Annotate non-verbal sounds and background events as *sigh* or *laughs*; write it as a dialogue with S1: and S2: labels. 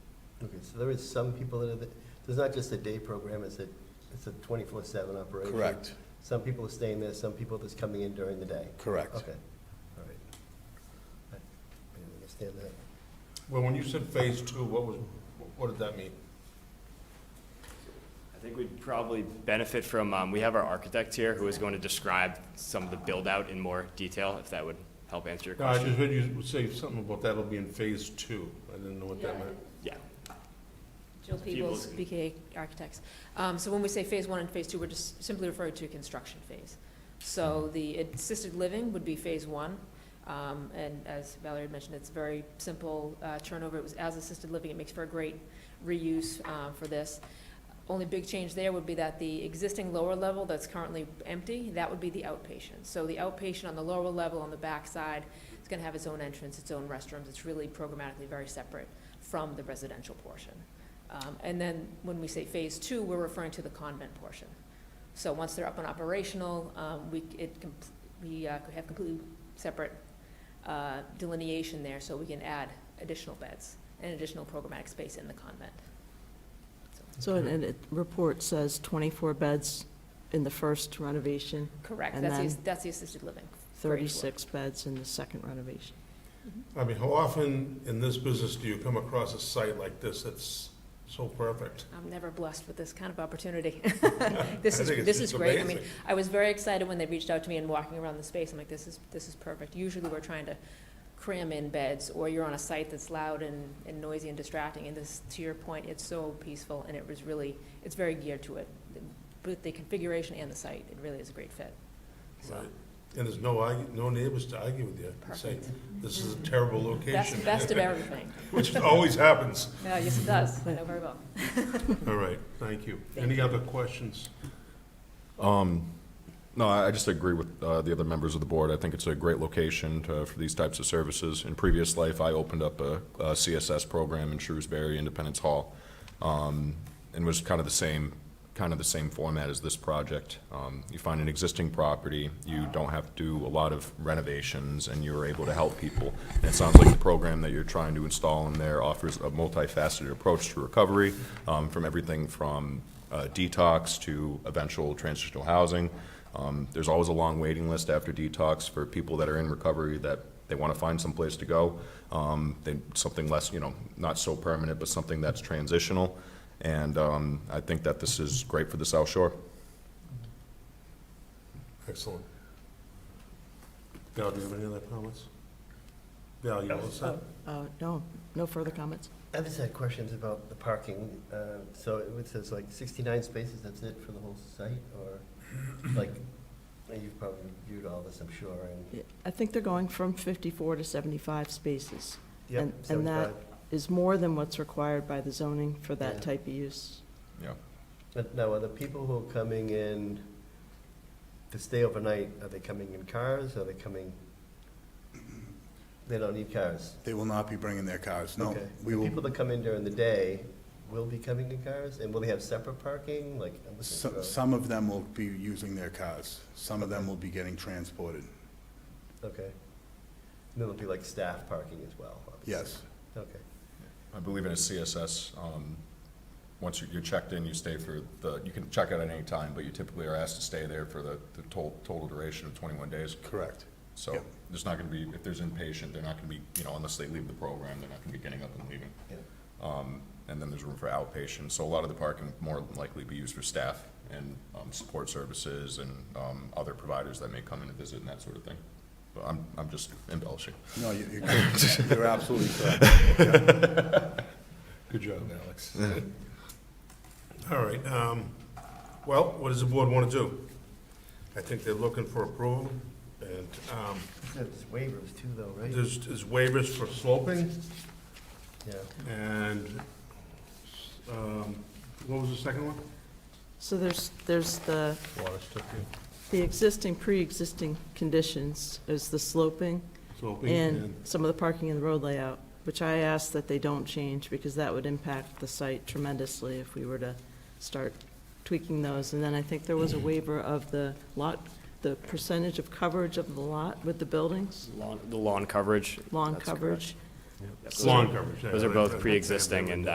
S1: period. So there is some people that are, the- there's not just a day program, it's a, it's a twenty-four seven operation.
S2: Correct,
S1: Some people are staying there, some people just coming in during the day.
S2: correct.
S1: Okay, all right. I I understand that.
S3: Well, when you said phase two, what was, what did that mean?
S4: I think we'd probably benefit from, um, we have our architect here who is going to describe some of the build-out in more detail, if that would help answer your
S3: No, I just
S4: question.
S3: heard you say something about that'll be in phase two. I didn't know what that meant.
S4: Yeah,
S5: Jill Peebles,
S4: Peebles.
S5: BK Architects. Um, So when we say phase one and phase two, we're just simply referring to construction phase. So the assisted living would be phase one, um, and as Valerie had mentioned, it's very simple uh, turnover. It was as assisted living, it makes for a great reuse uh, for this. Only big change there would be that the existing lower level that's currently empty, that would be the outpatient. So the outpatient on the lower level, on the backside, it's gonna have its own entrance, its own restrooms. It's really programmatically very separate from the residential portion. Um, And then when we say phase two, we're referring to the convent portion. So once they're up and operational, um, we, it, com- we uh, could have completely separate uh, delineation there, so we can add additional beds and additional programmatic space in the convent.
S6: So, and- and it, report says 24 beds in the first renovation,
S5: Correct,
S6: And
S5: that's the,
S6: then-
S5: that's the assisted living. floor.
S6: 36 beds in the second renovation.
S3: I mean, how often in this business do you come across a site like this that's so perfect?
S5: I'm never blessed with this kind of
S6: *laughs*
S5: opportunity.
S3: I
S5: This is,
S3: think it's
S5: this is
S3: just
S5: great. I mean,
S3: amazing.
S5: I was very excited when they reached out to me and walking around the space, I'm like, this is, this is perfect. Usually we're trying to cram in beds, or you're on a site that's loud and, and noisy and distracting, and this, to your point, it's so peaceful, and it was really, it's very geared to it. Both the configuration and the site, it really is a great fit. So,
S3: Right. And there's no, argu- no neighbors to argue with you and say,
S5: perfect.
S3: this is a terrible location. *laughs*
S5: Best, best of everything.
S3: Which always happens.
S5: No, yes, it does, I know very well. *laughs*
S3: All right, thank you.
S5: Thank
S3: Any other questions?
S7: No, I I just agree with uh, the other members of the board. I think it's a great location to- for these types of services. In previous life, I opened up a a CSS program in Shrewsbury, Independence Hall, um, and was kind of the same, kind of the same format as this project. Um, You find an existing property, you don't have to do a lot of renovations, and you're able to help people. And It sounds like the program that you're trying to install in there offers a multifaceted approach to recovery, um, from everything from uh, detox to eventual transitional housing. Um, There's always a long waiting list after detox for people that are in recovery that they want to find someplace to go. Um, They, something less, you know, not so permanent, but something that's transitional. And um, I think that this is great for the South Shore.
S3: Excellent. Val, do you have any other comments? Val, you all set?
S6: Uh, No, no further comments?
S1: I've just had questions about the parking. Uh, So it says like 69 spaces, that's it for the whole site? Or like, you've probably viewed all this, I'm sure, and,
S6: Yeah, I think they're going from 54 to 75 spaces,
S1: yep,
S6: And- and that-
S1: 75.
S6: is more than what's required by the zoning for
S1: Yeah.
S6: that type of use.
S7: Yeah.
S1: But now, are the people who are coming in to stay overnight, are they coming in cars? Are they coming? They don't need cars?
S2: They will not be bringing their cars, no.
S1: Okay.
S2: We
S1: The people
S2: will,
S1: that come in during the day will be coming in cars? And will they have separate parking? Like, I'm looking
S2: so-
S1: for-
S2: some of them will be using their cars. Some of them will be getting transported,
S1: okay. And then there'll be like staff parking as well? obviously.
S2: yes.
S1: Okay.
S7: I believe in a CSS, um, once you're- you're checked in, you stay for the, you can check out at any time, but you typically are asked to stay there for the the to- total duration of 21 days.
S2: Correct.
S7: So
S2: Yep.
S7: there's not going to be, if there's inpatient, they're not going to be, you know, unless they leave the program, they're not going to be getting up and leaving.
S1: Yeah.
S7: Um, And then there's room for outpatient, so a lot of the parking would more than likely be used for staff and um, support services and um, other providers that may come in to visit and that sort of thing. But I'm, I'm just embellishing.
S2: No, you- you're
S1: *laughs*
S2: correct. You're absolutely correct.
S3: Good job, Alex. All right, um, well, what does the board want to do? I think they're looking for approval, and, um,
S1: There's waivers too, though, right?
S3: there's there's waivers for sloping,
S1: Yeah.
S3: and, um, what was the second one?
S6: So there's, there's the,
S3: Water stuff,
S6: the existing, pre-existing conditions is the sloping
S3: sloping,
S6: and
S3: and,
S6: some of the parking and the road layout, which I ask that they don't change because that would impact the site tremendously if we were to start tweaking those. And then I think there was a waiver of the lot, the percentage of coverage of the lot with the buildings,
S4: Lawn- the lawn coverage.
S6: lawn
S4: That's correct.
S6: coverage.
S4: Yep, those are-
S3: lawn coverage. yeah,
S4: Those are
S3: right,
S4: both
S3: right.
S4: pre-existing and